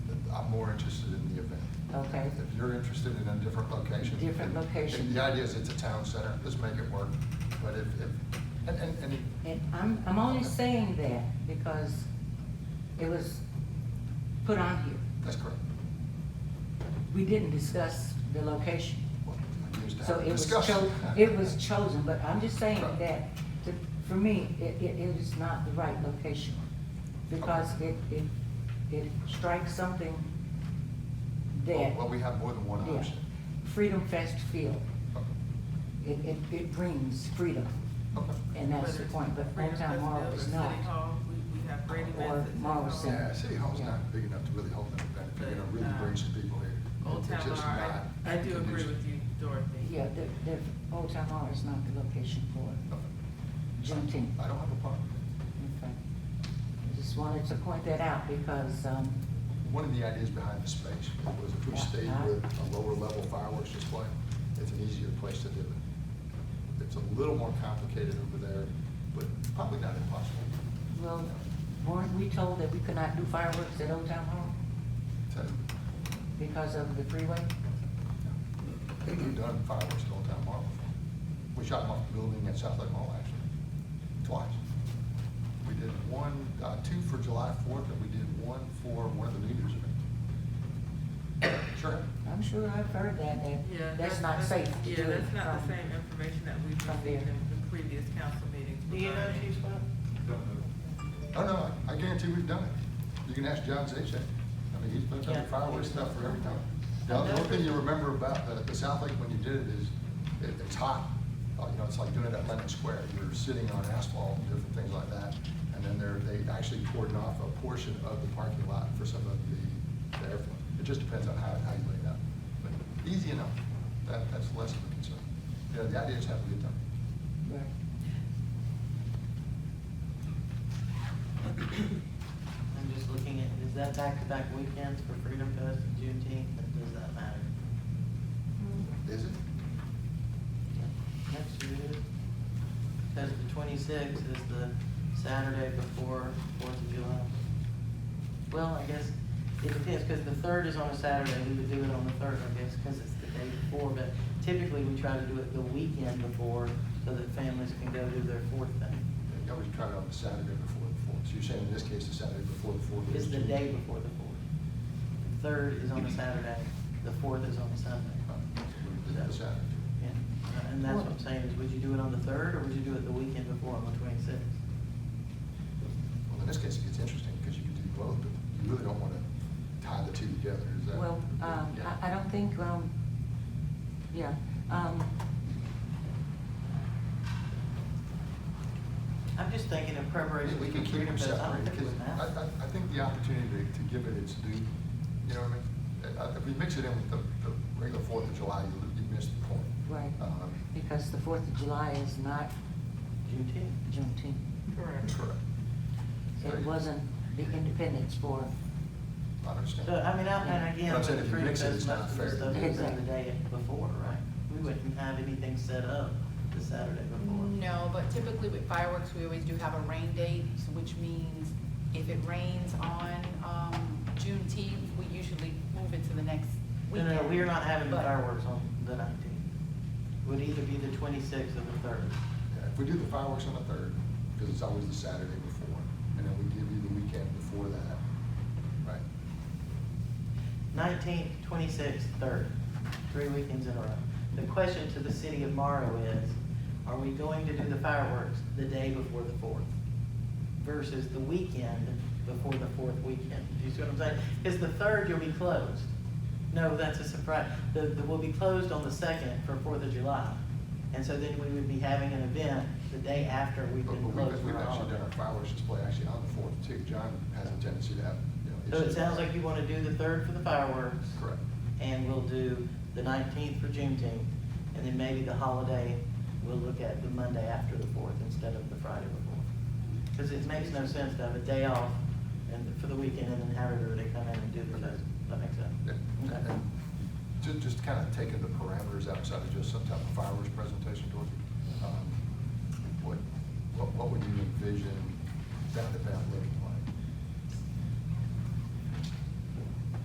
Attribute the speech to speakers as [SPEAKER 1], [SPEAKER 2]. [SPEAKER 1] I'm more interested in the event.
[SPEAKER 2] Okay.
[SPEAKER 1] If you're interested in a different location.
[SPEAKER 2] Different location.
[SPEAKER 1] and The idea is it's a town center, let's make it work, but if, if, and, and, and
[SPEAKER 2] And I'm, I'm only saying that because it was put on here.
[SPEAKER 1] that's correct.
[SPEAKER 2] We didn't discuss the location.
[SPEAKER 1] We used to
[SPEAKER 2] So
[SPEAKER 1] have a
[SPEAKER 2] it was
[SPEAKER 1] discussion.
[SPEAKER 2] cho, it was chosen, but I'm just saying
[SPEAKER 1] Right.
[SPEAKER 2] that, the- for me, it, it, it is not the right location. Because it, it, it strikes something
[SPEAKER 1] Well,
[SPEAKER 2] that,
[SPEAKER 1] Oh, well, we have more than one
[SPEAKER 2] yeah,
[SPEAKER 1] option.
[SPEAKER 2] Freedom Fest feel.
[SPEAKER 1] Okay.
[SPEAKER 2] It, it, it brings freedom,
[SPEAKER 1] Okay.
[SPEAKER 2] and that's the point, but
[SPEAKER 3] Freedom
[SPEAKER 2] Hometown Mall is
[SPEAKER 3] Festival,
[SPEAKER 2] not.
[SPEAKER 3] City Hall, we, we have great
[SPEAKER 2] Or
[SPEAKER 3] events. at City
[SPEAKER 2] Morrow
[SPEAKER 3] Hall.
[SPEAKER 2] Center.
[SPEAKER 1] Yeah, City Hall's not big enough to really hold an event, if you're gonna really bring some people here.
[SPEAKER 3] Old
[SPEAKER 1] it's
[SPEAKER 3] Town Mall,
[SPEAKER 1] just
[SPEAKER 3] I,
[SPEAKER 1] not
[SPEAKER 3] I do agree
[SPEAKER 1] conducive.
[SPEAKER 3] with you, Dorothy.
[SPEAKER 2] Yeah, the, the Old Town Hall is not the location for
[SPEAKER 1] Okay.
[SPEAKER 2] Juneteenth.
[SPEAKER 1] I don't have a problem.
[SPEAKER 2] Okay. I just wanted to point that out because, um,
[SPEAKER 1] One of the ideas behind the space was if we stayed with a lower level fireworks display, it's an easier place to do it. It's a little more complicated over there, but probably not impossible.
[SPEAKER 2] well, weren't we told that we could not do fireworks at Old Town Hall
[SPEAKER 1] So,
[SPEAKER 2] because of the freeway?
[SPEAKER 1] We've done fireworks at Old Town Mall before. We shot them off the building at South Lake Mall, actually, twice. We did one, uh, two for July fourth, and we did one for one of the leaders events. Sure.
[SPEAKER 2] I'm sure I've heard that,
[SPEAKER 3] Yeah.
[SPEAKER 2] that that's not safe to do
[SPEAKER 3] Yeah,
[SPEAKER 2] it
[SPEAKER 3] that's not
[SPEAKER 2] from-
[SPEAKER 3] the same information that we've
[SPEAKER 2] from
[SPEAKER 3] received
[SPEAKER 2] there.
[SPEAKER 3] in the previous council meetings.
[SPEAKER 4] Do you know if
[SPEAKER 3] regarding-
[SPEAKER 4] she's fine?
[SPEAKER 1] Oh, no, I I guarantee we've done it. You can ask John Zajac. I mean, he's put
[SPEAKER 3] Yeah.
[SPEAKER 1] up fireworks stuff for every time. The only one thing you remember about uh, the, the South Lake when you did it is, it, it's hot. Uh, You know, it's like doing it at Lennon Square. You're sitting on asphalt and different things like that. And then they're, they actually cordon off a portion of the parking lot for some of the, the airflow. It just depends on how, how you lay it out. But easy enough. That, that's less of a concern. You know, the idea is have a good time.
[SPEAKER 2] Right.
[SPEAKER 4] I'm just looking at, is that back-to-back weekends for Freedom Fest and Juneteenth, and does that matter?
[SPEAKER 1] Is it?
[SPEAKER 4] Next year it is. Because the twenty-sixth is the Saturday before Fourth of July. Well, I guess it depends, because the third is on a Saturday, we would do it on the third, I guess, because it's the day before, but typically we try to do it the weekend before, so that families can go do their fourth thing.
[SPEAKER 1] I always try it on the Saturday before the fourth. So you're saying in this case, the Saturday before the fourth?
[SPEAKER 4] is the day before the fourth. The third is on a Saturday, the fourth is on a
[SPEAKER 1] Uh,
[SPEAKER 4] Sunday.
[SPEAKER 1] we did The Saturday.
[SPEAKER 4] Yeah, And that's what I'm saying, is would you do it on the third, or would you do it the weekend before on the twenty-sixth?
[SPEAKER 1] Well, in this case, it gets interesting because you can do both, but you really don't want to tie the two together, is that?
[SPEAKER 2] Well, um,
[SPEAKER 1] Yeah.
[SPEAKER 2] I, I don't think, um, yeah, um,
[SPEAKER 4] I'm just thinking of preparation.
[SPEAKER 1] We can
[SPEAKER 4] for
[SPEAKER 1] keep them
[SPEAKER 4] Freedom Fest. I don't
[SPEAKER 1] separate
[SPEAKER 4] think
[SPEAKER 1] because
[SPEAKER 4] it
[SPEAKER 1] I,
[SPEAKER 4] matters.
[SPEAKER 1] I, I think the opportunity to to give it its due, you know what I mean? Uh, If we mix it in with the, the regular Fourth of July, you, you miss the point.
[SPEAKER 2] right,
[SPEAKER 1] Um,
[SPEAKER 2] because the Fourth of July is not
[SPEAKER 4] Juneteenth.
[SPEAKER 2] Juneteenth.
[SPEAKER 3] Correct.
[SPEAKER 1] Correct.
[SPEAKER 2] It wasn't the Independence for,
[SPEAKER 1] I understand.
[SPEAKER 4] So, I mean, I, and again,
[SPEAKER 1] But I'm
[SPEAKER 4] with
[SPEAKER 1] saying
[SPEAKER 4] the
[SPEAKER 1] if you
[SPEAKER 4] Freedom
[SPEAKER 1] mix it, it's
[SPEAKER 4] Fest,
[SPEAKER 1] not
[SPEAKER 4] most of
[SPEAKER 1] fair.
[SPEAKER 4] the stuff is done the
[SPEAKER 2] Exactly.
[SPEAKER 4] day before, right? We wouldn't have anything set up the Saturday before.
[SPEAKER 5] No, but typically with fireworks, we always do have a rain date, so which means if it rains on, um, Juneteenth, we usually move it to the next
[SPEAKER 4] No,
[SPEAKER 5] weekend.
[SPEAKER 4] no, we are not having the
[SPEAKER 5] But-
[SPEAKER 4] fireworks on the nineteenth. Would either be the twenty-sixth or the third.
[SPEAKER 1] Yeah, If we do the fireworks on the third, because it's always the Saturday before, and then we give you the weekend before that, right?
[SPEAKER 4] Nineteenth, twenty-sixth, third, three weekends in a row. The question to the city of Morrow is, are we going to do the fireworks the day before the fourth? Versus the weekend before the fourth weekend? Do you see what I'm saying? Because the third, you'll be closed. No, that's a surprise. The, the, we'll be closed on the second for Fourth of July. And so then we would be having an event the day after we've
[SPEAKER 1] But but
[SPEAKER 4] been
[SPEAKER 1] we've,
[SPEAKER 4] closed
[SPEAKER 1] we've
[SPEAKER 4] for all
[SPEAKER 1] actually done our fireworks display actually on the fourth too. John has a tendency to have, you know.
[SPEAKER 4] So it
[SPEAKER 1] issues.
[SPEAKER 4] sounds like you want to do the third for the fireworks.
[SPEAKER 1] Correct.
[SPEAKER 4] And we'll do the nineteenth for Juneteenth, and then maybe the holiday, we'll look at the Monday after the fourth instead of the Friday before. Because it makes no sense to have a day off and for the weekend and then have everybody come in and do the fest. That makes
[SPEAKER 1] Yeah.
[SPEAKER 4] sense?
[SPEAKER 1] And-
[SPEAKER 4] Okay.
[SPEAKER 1] and ju- Just, kind of taking the parameters outside of just some type of fireworks presentation, Dorothy. um, What, what, what would you envision that event looking